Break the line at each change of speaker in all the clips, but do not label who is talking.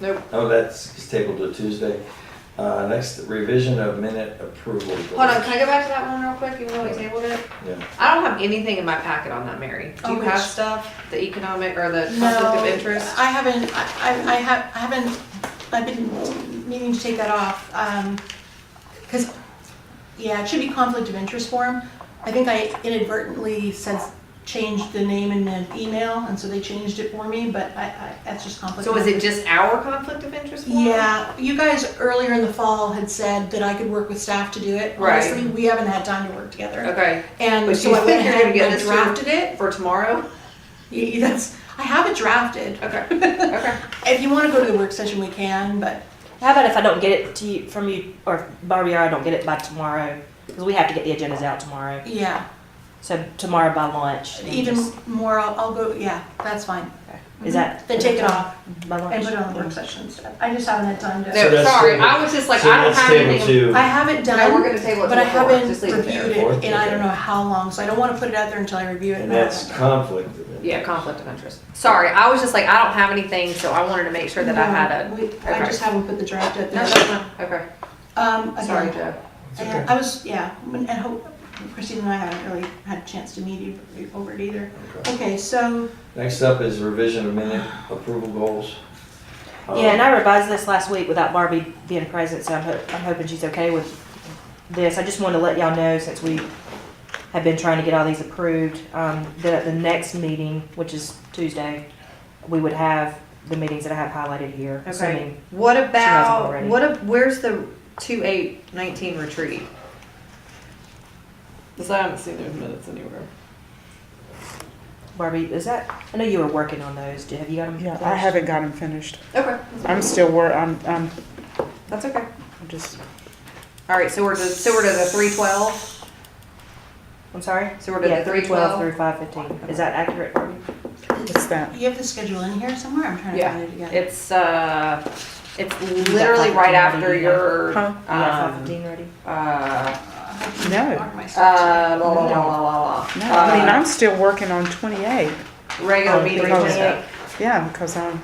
Nope.
Oh, that's tabled to Tuesday. Uh, next, revision of minute approval.
Hold on, can I go back to that one real quick, even though we tabled it?
Yeah.
I don't have anything in my packet on that, Mary. Do
Oh,
you
which-
have stuff, the economic or the conflict
No,
of interest?
I haven't, I, I- I have, I haven't, I've been meaning to take that off, um, cause, yeah, it should be conflict of interest form. I think I inadvertently sent, changed the name in an email, and so they changed it for me, but I, I, that's just conflict.
So
of
is it
interest.
just our conflict of interest form?
Yeah, you guys earlier in the fall had said that I could work with staff to do it.
Right.
Honestly, we haven't had time to work together.
Okay,
And
But
so
you
I went
think you're
ahead
gonna get
and
this through?
drafted it.
for tomorrow?
Yeah, That's, I have it drafted.
Okay, okay.
If you want to go to the work session, we can, but
How about if I don't get it to you from you or if Barbie or I don't get it by tomorrow because we have to get the agendas out tomorrow.
yeah,
So tomorrow by lunch. then
even
just-
more, I'll, I'll go, yeah, that's fine.
okay. is that
Then take it off
by lunch?
and put it on the work session instead. I just haven't had time to,
So
No,
that's
sorry,
table-
I was just like,
So
I don't
that's
have
table
anything.
two.
I have it
No, we're
done,
gonna table it
but I
till four,
haven't
just leave it there.
reviewed it and I
Okay.
don't know how long, so I don't want to put it out there until I review it.
And
I don't
that's
know.
conflict of interest.
Yeah, conflict of interest. Sorry, I was just like, I don't have anything, so I wanted to make sure that I had
No,
a.
we- I
okay.
just haven't put the draft out
No,
there.
no, no, okay,
Um,
sorry,
again,
Joe.
It's okay.
and I was, yeah, and hope, Christine and I haven't really had a chance to meet you over it either.
Okay.
Okay, so,
Next up is revision of minute approval goals. Um,
Yeah, and I revised this last week without Barbie being present, so I'm, ho- I'm hoping she's okay with this. I just wanted to let y'all know since we have been trying to get all these approved, um, that at the next meeting, which is Tuesday, we would have the meetings that I have highlighted here.
Okay,
assuming-
what about,
already.
what, a- where's the two eight nineteen retreat? Cause I haven't seen those minutes anywhere.
Barbie, is that, I know you were working on those. Do- Have you got them?
Yeah, I
finished?
haven't got them finished.
Okay,
I'm still wor, I'm, I'm
that's okay.
just,
Alright, so we're to, so we're to the three twelve,
I'm sorry?
so we're to
Yeah,
the three twelve.
through five fifteen. Is that accurate, Barbie?
what's that?
you have the schedule in here somewhere? I'm trying to
Yeah,
find it again.
It's, uh, it's literally right after your,
Huh?
Yeah, five
um,
fifteen already.
uh,
No,
uh, la la la la la la.
no, I mean,
Uh,
I'm still working on twenty-eight.
Regular
Oh,
meeting.
three
minutes.
twenty-eight.
Yeah, because I'm,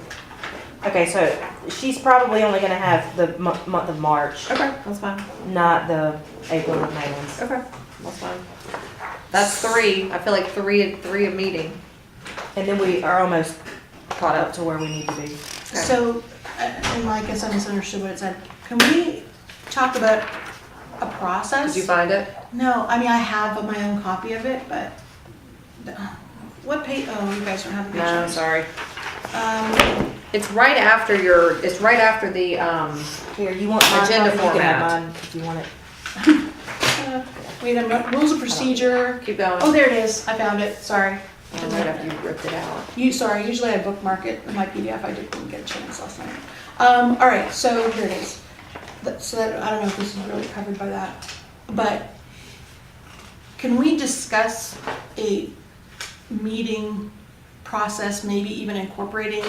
Okay, so she's probably only gonna have the mo- month of March,
Okay, that's fine,
not the April and May ones.
okay, that's fine. That's three, I feel like three, three a meeting
And then we are almost
caught up.
up to where we need to be.
So, uh, and I guess I misunderstood what it said. Can we talk about a
Did
process?
you find it?
No, I mean, I have my own copy of it, but what page, oh, you guys don't have the page.
No,
numbers.
sorry.
Um,
It's right after your, it's right after the, um,
Here, you want mine?
Agenda
Barbie? You can have
format.
mine If you want it.
uh, Wait, I'm, rules of procedure.
keep going.
Oh, there it is. I found it. Sorry.
And right after you ripped it out.
You, sorry, usually I bookmark it in my PDF, I didn't get a chance last night. Um, all right, so here it is. That- So that, I don't know if this is really covered by that, but can we discuss a meeting process, maybe even incorporating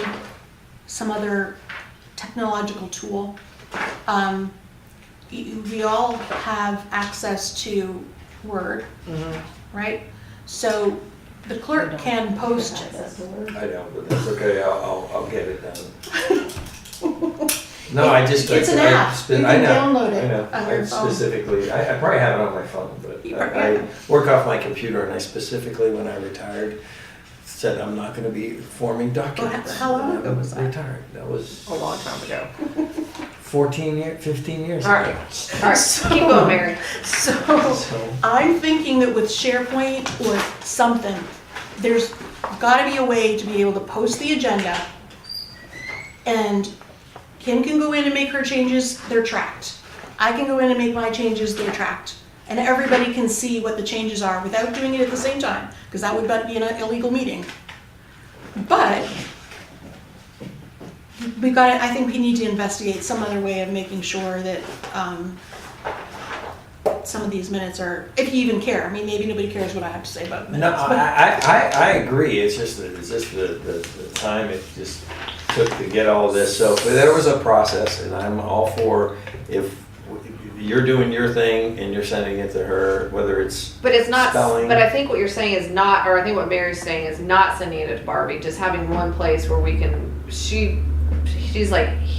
some other technological tool? Um, y- we all have access to Word, right? So the clerk can post
I know, but that's okay, I'll, I'll, I'll get it done. No, I just.
It's an
I- I
app.
spe-
You
I
can
know,
download it
I know.
on your
I
phone.
Specifically, I, I probably have it on my phone,
You
but
probably
I-
have
I work off my computer and I specifically, when I retired, said I'm not gonna be forming documents.
how long ago
I'm
was that?
Retired, that was
a long time ago.
fourteen year, fifteen years
All right.
ago.
All right, keep going, Mary.
So
So,
I'm thinking that with SharePoint or something, there's gotta be a way to be able to post the agenda. And Kim can go in and make her changes, they're tracked. I can go in and make my changes, they're tracked. And everybody can see what the changes are without doing it at the same time, because that would be an illegal meeting. But we've got, I think we need to investigate some other way of making sure that, um, some of these minutes are, if you even care, I mean, maybe nobody cares what I have to say about
no,
minutes, but
I, I, I, I agree, it's just, the- it's just the, the, the time it just took to get all this, so there was a process, and I'm all for if you're doing your thing and you're sending it to her, whether it's,
But it's not,
Spelling.
but I think what you're saying is not, or I think what Mary's saying is not sending it to Barbie, just having one place where we can, she, she's like,